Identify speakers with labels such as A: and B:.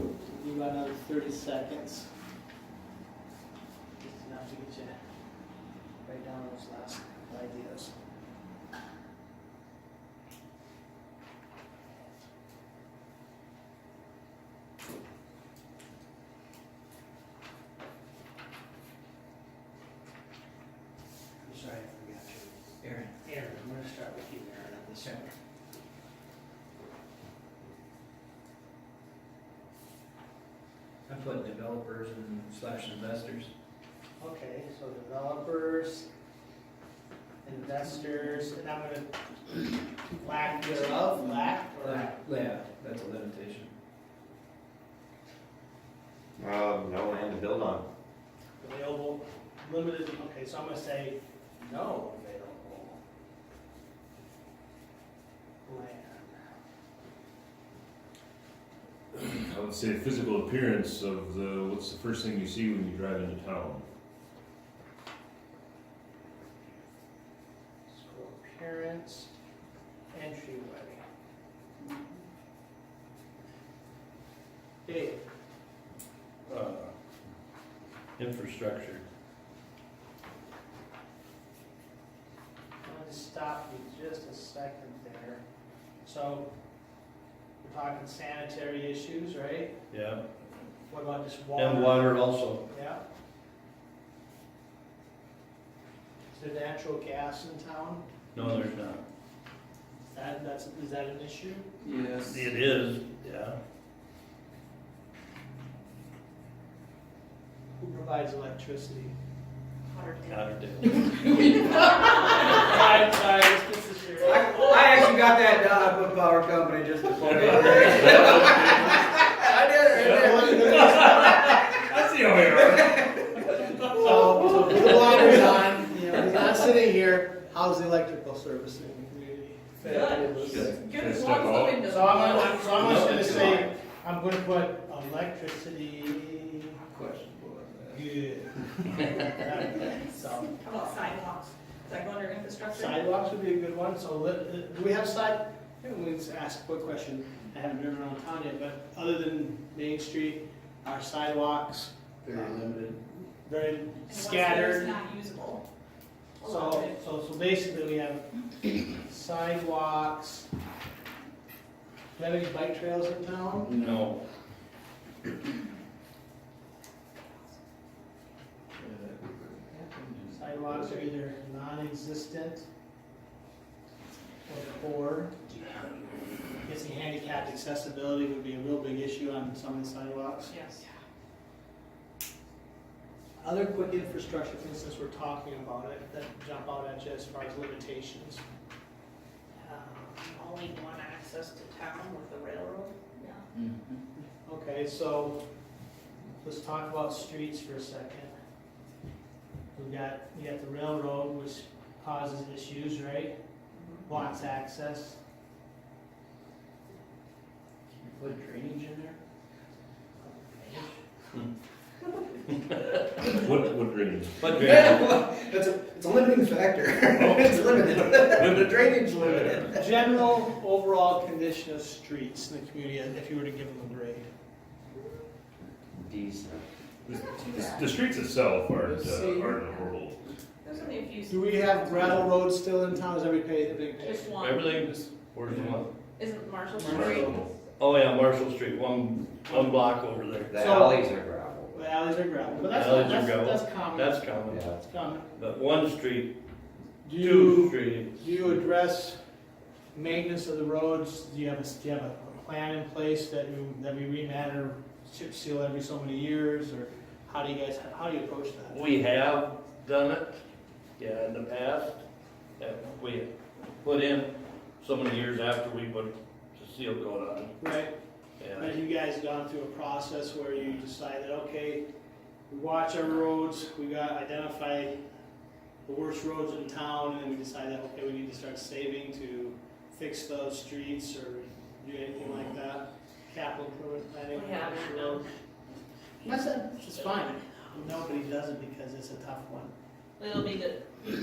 A: about another thirty seconds. Just enough to get you right down to those last ideas. I'm sorry, I forgot you. Aaron, Aaron, I'm gonna start with you, Aaron, on this one.
B: I put developers and slash investors.
A: Okay, so developers, investors, and I'm gonna, lack thereof, lack, or,
B: Yeah, that's a limitation.
C: Um, no land to build on.
A: available, limited, okay, so I'm gonna say no available. Land.
D: I would say physical appearance of the, what's the first thing you see when you drive into town?
A: School appearance, entryway. Dave,
E: Uh, Infrastructure.
A: I'm gonna stop you just a second there. So, we're talking sanitary issues, right?
E: Yeah.
A: What about just water?
E: And water also.
A: Yeah. Is there natural gas in town?
E: No, there's not.
A: Is that, that's, is that an issue?
B: Yes.
E: It is, yeah.
A: Who provides electricity?
E: Cotterdale.
A: Sorry, sorry, this is your.
B: I, I actually got that uh, down, I put power company just to point it out. I did it right there.
D: That's the only one.
A: So, so the water's on, you know, he's not sitting here, how's the electrical service in the community?
D: Good. Can
F: Good,
D: I
F: good,
D: step
F: lots
D: out?
F: of windows.
A: So I'm, gonna- I'm, so I'm just gonna say, I'm gonna put electricity
B: Questionable, I guess.
A: good. So.
F: How about sidewalks? Does that go under infrastructure?
A: Sidewalks would be a good one, so let, uh, do we have side, maybe we can just ask a quick question, I haven't driven around town yet, but other than Main Street, our sidewalks,
B: Very limited.
A: very
F: And what's there is
A: scattered.
F: not usable. A lot of
A: So,
F: it.
A: so, so basically we have sidewalks. Do we have any bike trails in town?
E: No.
A: Sidewalks are either non-existent or poor. Guessing handicapped accessibility would be a real big issue on some of the sidewalks.
F: Yes.
A: Other quick infrastructure things since we're talking about it, that jump out at you as far as limitations.
G: um, only one access to town with the railroad.
F: Yeah.
A: Okay, so let's talk about streets for a second. We've got, we got the railroad, which causes issues, right? Blocks access.
B: Can you put drainage in there?
D: What, what drainage?
E: But
B: It's a, it's a limiting factor. It's limited. The drainage limited.
A: General overall condition of streets in the community, if you were to give them a grade.
C: Decent.
G: Mm-hmm.
D: The, the streets itself aren't, uh, aren't horrible.
F: There's only a few.
A: Do we have gravel roads still in town, is everybody the big picture?
F: Just one.
E: everything is, where's the one?
F: Isn't Marshall Street?
D: Marshall.
E: Oh, yeah, Marshall Street, one, one block over there.
C: The
A: So-
C: alleys are gravel.
A: The alleys are gravel, but that's,
E: Alleys are
A: that's,
E: gravel.
A: that's common.
E: That's common.
C: Yeah.
A: That's common.
E: But one street, two
A: Do you,
E: streets.
A: do you address maintenance of the roads? Do you have a, do you have a plan in place that you, that we remat or chip seal every so many years? Or how do you guys, how do you approach that?
E: We have done it, yeah, in the past, that we put in so many years after we put the seal coat on.
A: Right,
E: Yeah,
A: have you guys gone through a process where you decided, okay, we watch our roads, we got, identify the worst roads in town, and then we decide that, okay, we need to start saving to fix those streets or do anything like that? Capital improvement planning?
G: We haven't,
A: for
G: no.
A: roads? That's, it's fine. Nobody does it because it's a tough one.
G: It'll be the